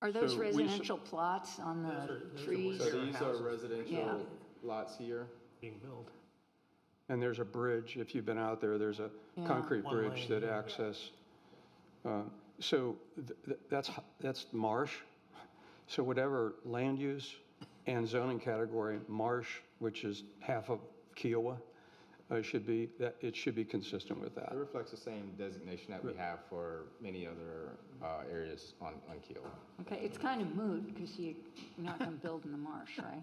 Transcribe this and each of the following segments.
Are those So we should- residential plots on Those the are- those are trees? where- So Sure, these houses. are residential lots here, being built. and there's a bridge, if you've been out there, there's a Yeah. concrete One bridge lane, that access. uh, So th- th- that's, h- that's marsh. So whatever land use and zoning category, marsh, which is half of Kiowa, uh, should be, that, it should be consistent with that. It reflects the same designation that we have for many other uh, areas on, on Keel. Okay, it's kind of moot because you're not going to build in the marsh, right?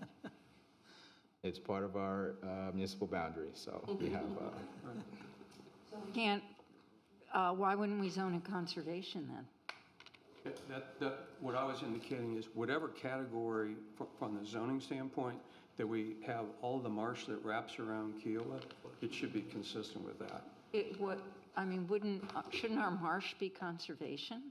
It's part of our uh, municipal boundary, so we have, uh, Can't, uh, why wouldn't we zone a conservation then? That, that, what I was indicating is whatever category, fr- from the zoning standpoint, that we have all the marsh that wraps around Keola, it should be consistent with that. It would, I mean, wouldn't, uh, shouldn't our marsh be conservation?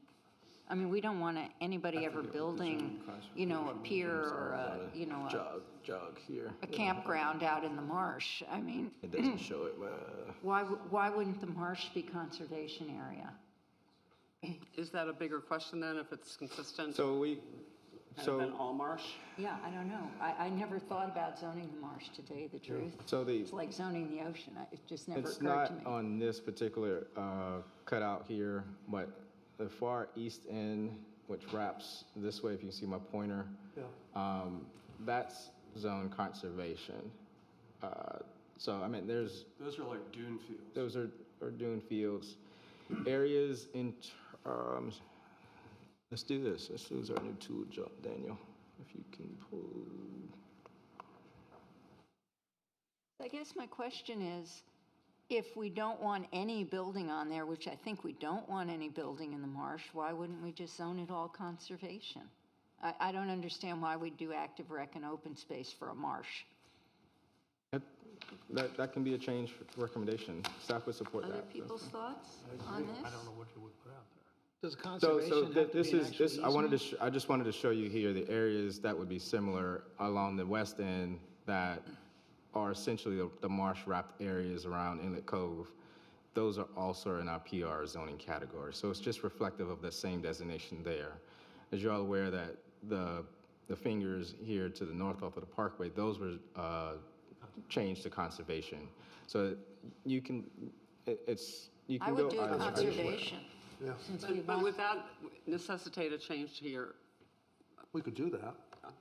I mean, we don't want anybody ever building, you know, a pier or a, you know, a- jog, jog here. a campground out in the marsh. I mean, It doesn't show it, uh, why, w- why wouldn't the marsh be conservation area? Is that a bigger question then, if it's consistent so we, than so, all marsh? Yeah, I don't know. I, I never thought about zoning the marsh today, the truth. so the, It's like zoning the ocean. I- It just never it's occurred to not me. on this particular uh, cutout here, but the far east end, which wraps this way, if you can see my pointer, Yeah. um, that's zone conservation. Uh, So, I mean, there's, Those are like dune fields. Those are, are dune fields. Areas in terms, let's do this. Let's use our new tool, Jo- Daniel, if you can pull. I guess my question is, if we don't want any building on there, which I think we don't want any building in the marsh, why wouldn't we just zone it all conservation? I, I don't understand why we'd do active rec and open space for a marsh. that, that, that can be a change recommendation. Staff would support that. Other people's thoughts on this? I don't know what you would put out there. Does So, so conservation th- have to this be an is, actual this, I wanted to, easement? sh- I just wanted to show you here the areas that would be similar along the west end that are essentially the- the marsh wrapped areas around Inlet Cove. Those are also in our PR zoning category. So it's just reflective of the same designation there. As you're all aware that the, the fingers here to the north off of the parkway, those were, uh, changed to conservation. So you can, it, it's, you I can go. would do either- either way. conservation. Since we But but want, would that necessitate a change to your, We could do that. I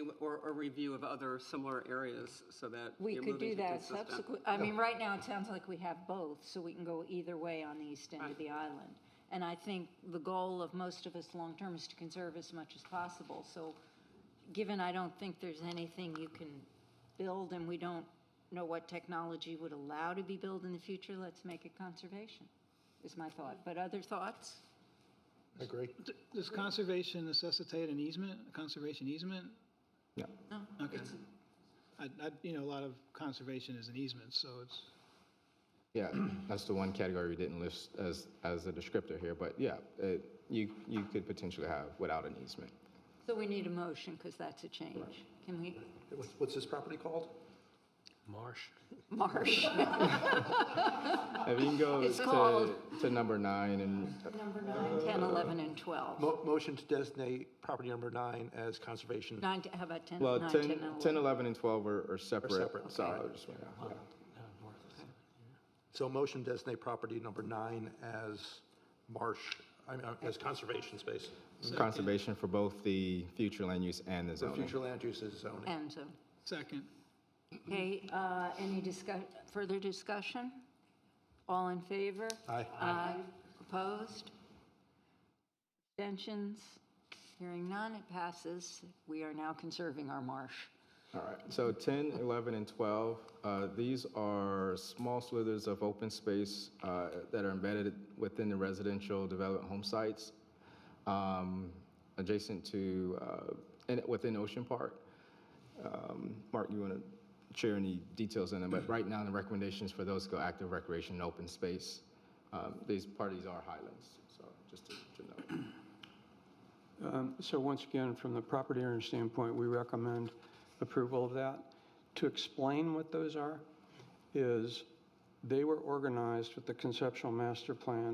mean, or a review of other similar areas so that we you're could moving do to that consistent? subsequent, I mean, right now it sounds like we have both, so we can go either way on the east end of the island. And I think the goal of most of us long-term is to conserve as much as possible. So given I don't think there's anything you can build and we don't know what technology would allow to be built in the future, let's make it conservation, is my thought. But other thoughts? I agree. Does conservation necessitate an easement, a conservation easement? No. Okay. I, I, you know, a lot of conservation is an easement, so it's, Yeah, that's the one category we didn't list as, as a descriptor here, but yeah, it, you, you could potentially have without an easement. So we need a motion because that's a change. Can we, What's, what's this property called? Marsh. Marsh? If you can go It's called- to, to number nine and, Number nine, 10, 11, and 12. Mo- Motion to designate property number nine as conservation. Nine, to- how about 10, well, 9, 10, 10, 11? 10, 11, and 12 are, are separate. separate, So I just went out, yeah. So motion to designate property number nine as marsh, I mean, uh, as conservation space. Conservation for both the future land use and the The zoning. future land use is zoning. And so, second. okay, uh, any discuss, further discussion? All in favor? Aye. Aye. Opposed? Abstentions? Hearing none, it passes. We are now conserving our marsh. All right, so 10, 11, and 12, uh, these are small slithers of open space uh, that are embedded within the residential development home sites um, adjacent to, uh, and within Ocean Park. Um, Mark, you want to share any details in them, but right now, the recommendations for those go active recreation and open space. Um, These parties are highlands, so just to to note. Um, So once again, from the property owner standpoint, we recommend approval of that. To explain what those are, is they were organized with the conceptual master plan